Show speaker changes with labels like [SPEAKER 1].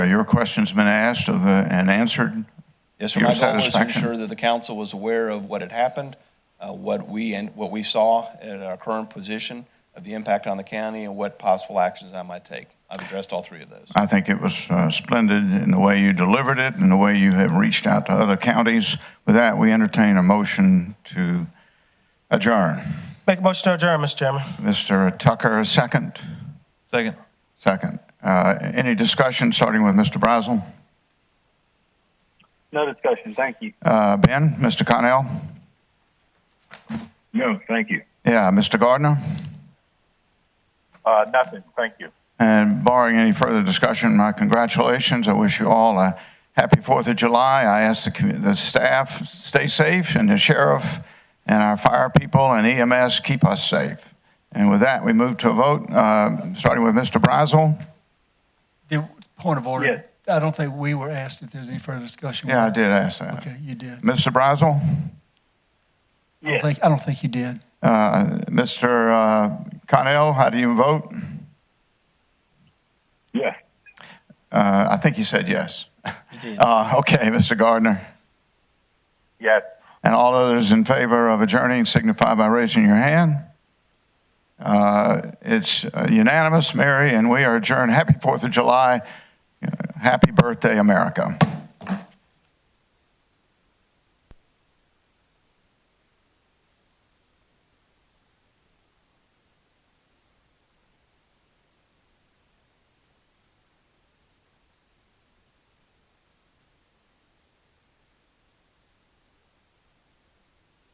[SPEAKER 1] Your question's been asked of, uh, and answered.
[SPEAKER 2] Yes, sir.
[SPEAKER 1] Your
[SPEAKER 2] My goal was to
[SPEAKER 1] satisfaction.
[SPEAKER 2] ensure that the council was aware of what had happened, uh, what we, and what we saw at our current position of the impact on the county and what possible actions I might take. I've addressed all three of those.
[SPEAKER 1] I think it was uh, splendid in the way you delivered it and the way you have reached out to other counties. With that, we entertain a motion to adjourn.
[SPEAKER 3] Make a motion to adjourn, Mr. Chairman.
[SPEAKER 1] Mr. Tucker, a second?
[SPEAKER 4] Second.
[SPEAKER 1] Second. Uh, Any discussion, starting with Mr. Brazel?
[SPEAKER 5] No discussion. Thank you.
[SPEAKER 1] Uh, Ben, Mr. Connell?
[SPEAKER 5] No, thank you.
[SPEAKER 1] Yeah, Mr. Gardner?
[SPEAKER 5] Uh, nothing. Thank you.
[SPEAKER 1] And barring any further discussion, my congratulations. I wish you all a happy Fourth of July. I ask the, commu- the staff, stay safe, and the sheriff and our fire people and EMS, keep us safe. And with that, we move to a vote, uh, starting with Mr. Brazel.
[SPEAKER 6] The point of
[SPEAKER 5] Yes.
[SPEAKER 6] order, I don't think we were asked if there's any further discussion.
[SPEAKER 1] Yeah, I did ask that.
[SPEAKER 6] Okay, you did.
[SPEAKER 1] Mr. Brazel,
[SPEAKER 6] I don't
[SPEAKER 5] Yes.
[SPEAKER 6] think, I don't think you did.
[SPEAKER 1] uh, Mr. uh, Connell, how do you vote?
[SPEAKER 5] Yes.
[SPEAKER 1] Uh, I think you said yes. Uh, okay, Mr. Gardner.
[SPEAKER 5] Yes.
[SPEAKER 1] And all others in favor of adjourning signify by raising your hand. Uh, It's unanimous, Mary, and we are adjourned. Happy Fourth of July. Happy Uh, birthday, America.